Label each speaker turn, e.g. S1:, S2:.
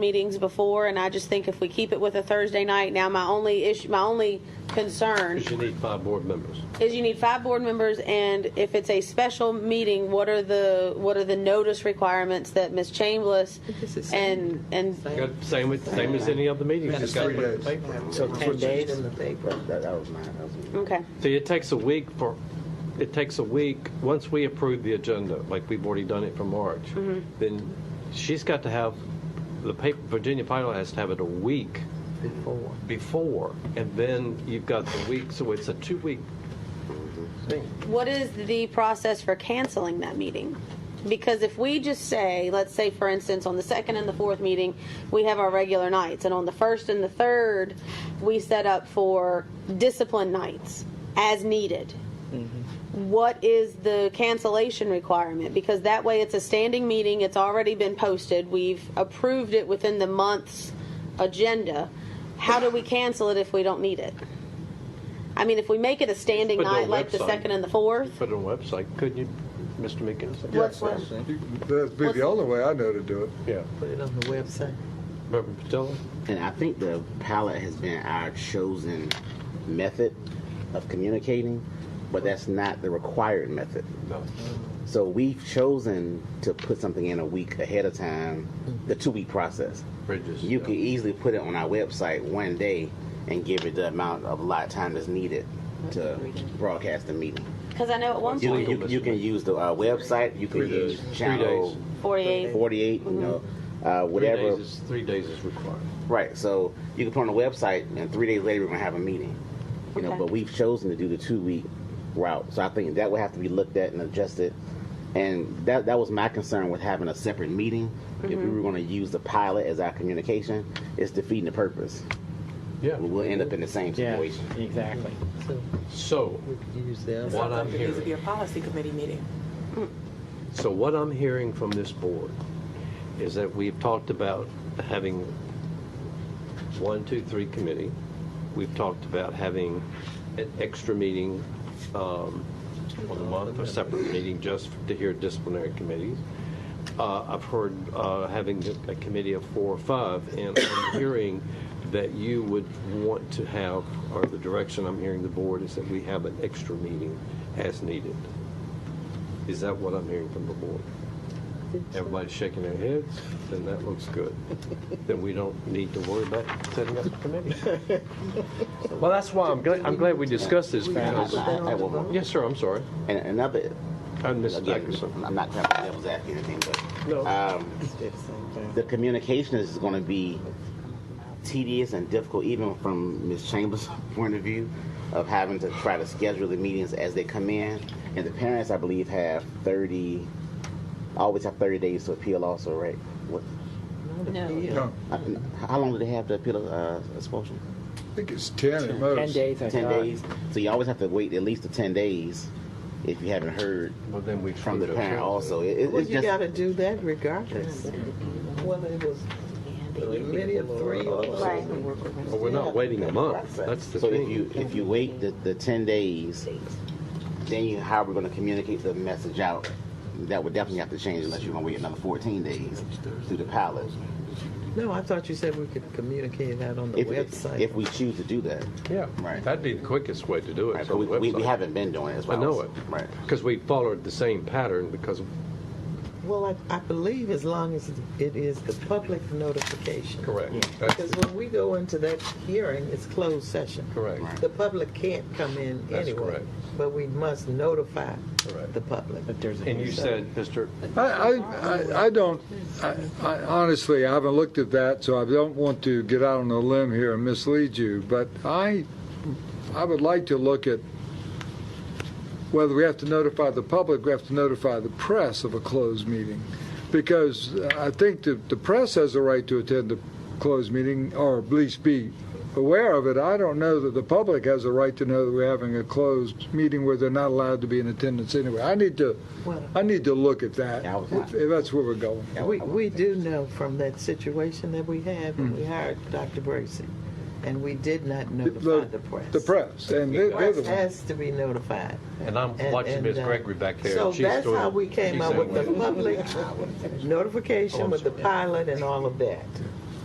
S1: meetings before, and I just think if we keep it with a Thursday night, now my only issue, my only concern
S2: Because you need five board members.
S1: is you need five board members, and if it's a special meeting, what are the, what are the notice requirements that Ms. Chambliss
S3: This is-
S1: and, and
S2: Got- Same, with- same as any other meeting.
S4: It's
S2: Just gotta
S4: three
S2: put it in
S4: days.
S2: the paper.
S3: So ten days in the paper.
S4: That, that was mine. That was mine.
S1: Okay.
S2: See, it takes a week for, it takes a week, once we approve the agenda, like we've already done it for March, then she's got to have, the paper, Virginia Pilot has to have it a week
S3: Before.
S2: before, and then you've got the week, so it's a two-week thing.
S1: What is the process for canceling that meeting? Because if we just say, let's say for instance, on the second and the fourth meeting, we have our regular nights, and on the first and the third, we set up for discipline nights as needed.
S2: Mm-hmm.
S1: What is the cancellation requirement? Because that way it's a standing meeting, it's already been posted, we've approved it within the month's agenda. How do we cancel it if we don't need it? I mean, if we make it a standing
S2: Put it on
S1: night like the
S2: website.
S1: second and the fourth,
S2: Put it on the website, couldn't you, Mr. Meekins?
S1: What's
S4: Yes, That'd be the only way I know to do it.
S2: Yeah.
S3: Put it on the website.
S2: Reverend Patel?
S5: And I think the palette has been our chosen method of communicating, but that's not the required method.
S2: No.
S5: So we've chosen to put something in a week ahead of time, the two week process.
S2: Bridges.
S5: You
S2: yeah.
S5: could easily put it on our website one day and give it the amount of lot time that's needed to broadcast the meeting.
S1: Because I know at one
S5: You,
S1: point,
S5: you, you can use the uh, website, you can
S2: Three days.
S5: use
S2: Three
S5: channel
S2: days.
S1: 48.
S5: 48, you know, uh,
S2: Three
S5: whatever.
S2: days is, three days is required.
S5: Right. So you can put on a website, and three days later we're gonna have a meeting. You know,
S1: Okay.
S5: but we've chosen to do the two week route. So I think that would have to be looked at and adjusted. And that that was my concern with having a separate meeting. If we were gonna use the pilot as our communication, it's defeating the purpose.
S2: Yeah.
S5: We'll end up in the same
S6: Yeah,
S5: situation.
S6: exactly.
S3: So
S2: So,
S3: we could use that.
S2: What I'm
S7: It needs to be
S2: hearing,
S7: a policy committee meeting.
S2: so what I'm hearing from this board is that we've talked about having one, two, three committee. We've talked about having an extra meeting um, on the month, a separate meeting just to hear disciplinary committees. Uh, I've heard uh, having a committee of four or five, and I'm hearing that you would want to have, or the direction I'm hearing the board is that we have an extra meeting as needed. Is that what I'm hearing from the board? Everybody's shaking their heads, then that looks good. Then we don't need to worry about setting up a committee. Well, that's why I'm glad, I'm glad we discussed this because,
S5: I- I- I will-
S2: yes, sir, I'm sorry.
S5: And another,
S2: I'm Mrs.
S5: again,
S2: Dickerson.
S5: I'm not trying to be devil's advocate or anything,
S2: No.
S5: but um,
S3: Did the same thing.
S5: the communication is going to be tedious and difficult, even from Ms. Chambers' point of view, of having to try to schedule the meetings as they come in. And the parents, I believe, have 30, always have 30 days to appeal also, right? What,
S4: No,
S5: uh, how long do they have to appeal uh, expulsion?
S4: I think it's ten at most.
S6: Ten days, I
S5: 10
S6: thought.
S5: days. So you always have to wait at least the 10 days if you haven't heard
S2: Well, then we.
S5: from the parent also. It, it,
S3: Well,
S5: it's
S3: you
S5: just,
S3: gotta do that regardless. Whether it was a committee of three or.
S1: Right.
S2: Well, we're not waiting a month, that's the
S5: So if
S2: thing.
S5: you, if you wait the, the ten days, then you, how are we gonna communicate the message out? That would definitely have to change unless you're gonna wait another fourteen days through the pilot.
S3: No, I thought you said we could communicate that on the
S5: If,
S3: website.
S5: if we choose to do that.
S2: Yeah,
S5: Right.
S2: that'd be the quickest way to do it.
S5: Right,
S2: is
S5: but
S2: on
S5: we,
S2: the
S5: we, we
S2: website.
S5: haven't been doing it as
S2: I
S5: well.
S2: know it.
S5: Right.
S2: Because we followed the same pattern because,
S3: Well, I, I believe as long as it is the public notification.
S2: correct. That's
S3: Because when we go into that hearing, it's closed session.
S2: Correct.
S3: The public can't come in
S2: That's
S3: anyway.
S2: correct.
S3: But we must notify
S2: Correct.
S3: the public.
S6: But there's a.
S2: And you said, Mr.
S4: I, I, I- I don't, I, I honestly, I haven't looked at that, so I don't want to get out on a limb here and mislead you, but I, I would like to look at whether we have to notify the public, we have to notify the press of a closed meeting. Because I think that the press has a right to attend a closed meeting, or at least be aware of it. I don't know that the public has a right to know that we're having a closed meeting where they're not allowed to be in attendance anyway. I need to,
S3: Well-
S4: I need to look at that,
S5: Yeah, I was
S4: if if that's where we're going.
S3: We, we do know from that situation that we had when
S4: Hmm.
S3: we hired Dr. Bracy, and we did not notify the press.
S4: The press, and they're they're
S3: Press
S4: the ones.
S3: has to be notified.
S2: And I'm
S3: And-
S2: watching
S3: and,
S2: Miss
S3: uh,
S2: Gregory back there.
S3: So
S2: and she's
S3: that's
S2: doing-
S3: how we came
S2: she's
S3: up with
S2: saying,
S3: the public
S5: I would-
S3: notification with the pilot and all of that.